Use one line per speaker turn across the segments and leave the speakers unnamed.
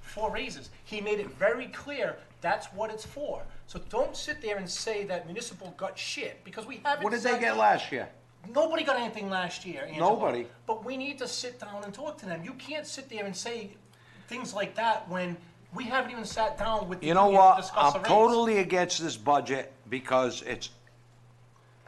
for raises. He made it very clear that's what it's for. So don't sit there and say that municipal got shit, because we haven't.
What did they
said-
get last year?
Nobody got anything last year, Angelo.
Nobody.
But we need to sit down and talk to them. You can't sit there and say things like that when we haven't even sat down with the
You know
union to
what?
discuss
I'm
a raise.
totally against this budget because it's,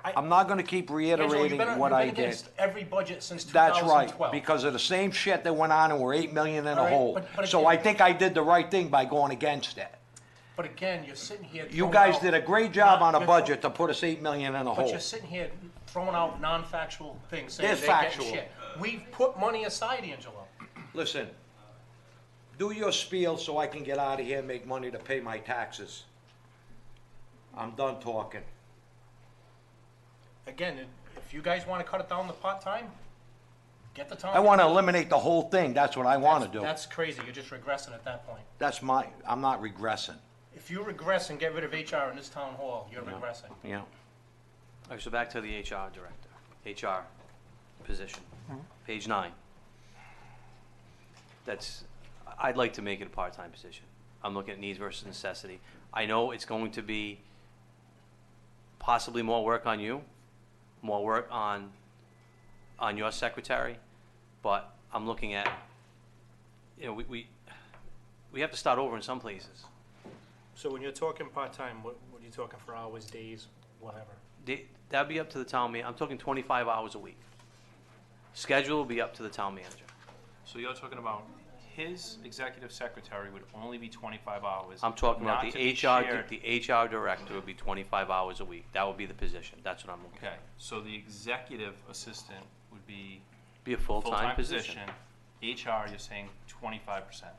I-
I'm not gonna keep
Angelo, you've
reiterating
been- you've been
what I did.
against Every budget since
That's
2012.
right, because of the same shit that went on and we're eight million in
All
a
right,
hole.
but- but
So
again-
I think I did the right thing by going against it.
But again, you're sitting here.
You
throwing
guys
out-
did a great job on a
You're-
budget to put us eight million in a
But
hole.
you're sitting here throwing out non-factual things, saying
They're
they're getting
factual.
shit. We've put money aside, Angelo.
Listen, do your spiel so I can get out of here and make money to pay my taxes. I'm done talking.
Again, if you guys wanna cut it down to part-time, get the time.
I wanna eliminate the whole thing, that's what I wanna do.
That's crazy, you're just regressing at that point.
That's my, I'm not regressing,
If you regress and get rid of HR in this town hall, you're regressing.
you know?
All right, so back to the HR director, HR position, page nine. That's, I- I'd like to make it a part-time position. I'm looking at needs versus necessity. I know it's going to be possibly more work on you, more work on, on your secretary, but I'm looking at, you know, we, we, we have to start over in some places.
So when you're talking part-time, what, what are you talking for hours, days, whatever?
They- That'd be up to the town man, I'm talking twenty-five hours a week. Schedule will be up to the town manager.
So you're talking about his executive secretary would only be twenty-five hours.
I'm talking about
not
the
to be
HR, di-
shared.
the HR director would be twenty-five hours a week, that would be the position, that's what I'm looking at.
Okay, so the executive assistant would be
Be a
full-time
full-time position,
position. HR, you're saying twenty-five percent,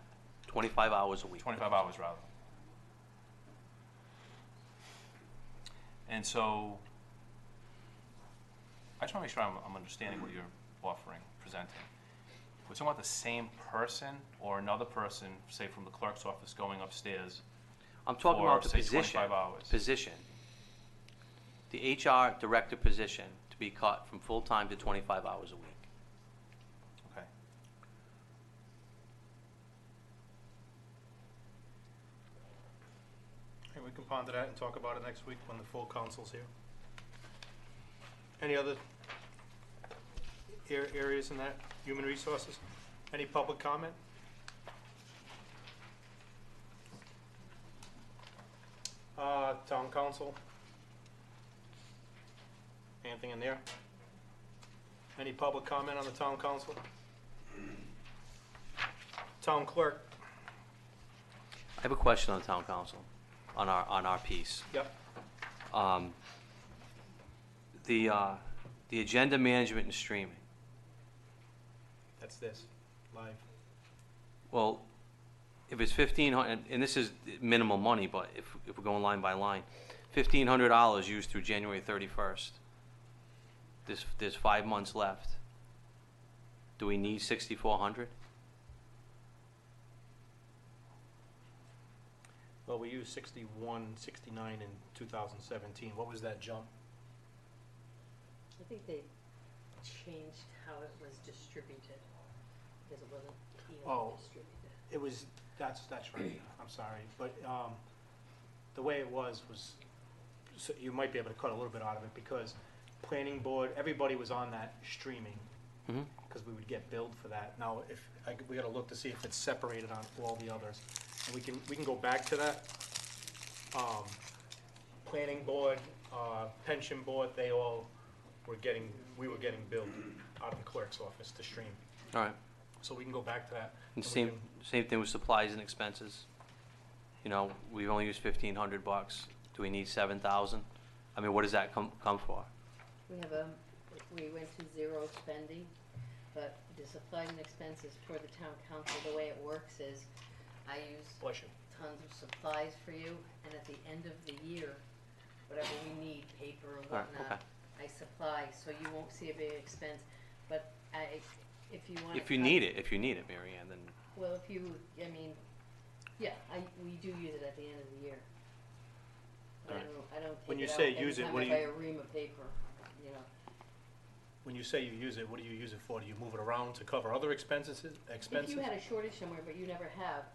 twenty-five hours a week.
twenty-five hours rather. And so, I just wanna make sure I'm, I'm understanding what you're offering, presenting. We're talking about the same person or another person, say from the clerk's office going upstairs
I'm talking
Or,
about the
say,
position,
25 hours.
position. The HR director position to be cut from full-time to twenty-five hours a week.
Okay.
And we can ponder that and talk about it next week when the full council's here. Any other ar- areas in that, human resources? Any public comment? Uh, town council? Anything in there? Any public comment on the town council? Town clerk?
I have a question on the town council, on our, on our piece.
Yep.
um, the, uh, the agenda management and streaming.
That's this, live.
Well, if it's fifteen hundred, and this is minimal money, but if, if we're going line by line, fifteen hundred dollars used through January thirty-first. There's, there's five months left. Do we need sixty-four hundred?
Well, we used 61, 69 in 2017. What was that jump?
I think they changed how it was distributed, because it wasn't
Oh.
evenly distributed.
It was, that's, that's right. I'm sorry. But um, the way it was, was, so you might be able to cut a little bit out of it because planning board, everybody was on that streaming
Mhm.
because we would get billed for that. Now, if, I g- we gotta look to see if it's separated on all the others. And we can, we can go back to that. Um, Planning board, uh, pension board, they all were getting, we were getting billed out of the clerk's office to stream.
All right,
So we can go back to that.
and
we
same,
can-
same thing with supplies and expenses. You know, we've only used fifteen hundred bucks. Do we need seven thousand? I mean, what does that come, come for?
We have a, we went to zero spending, but the supply and expenses toward the town council, the way it works is, I use
Bless you.
tons of supplies for you, and at the end of the year, whatever we need, paper or
All right,
whatnot, I supply, so you won't see a big expense, but I, if you wanna.
If you
cut-
need it, if you need it, Mary Ann, then,
Well, if you, I mean, yeah, I, we do use it at the end of the year. But I
Alright.
don't, I don't
When you
take it out
say use it,
every
what
time
do
I buy
you-
a ream of paper, you know.
When you say you use it, what do you use it for? Do you move it around to cover other expenses, expenses?
If you had a shortage somewhere, but you never have,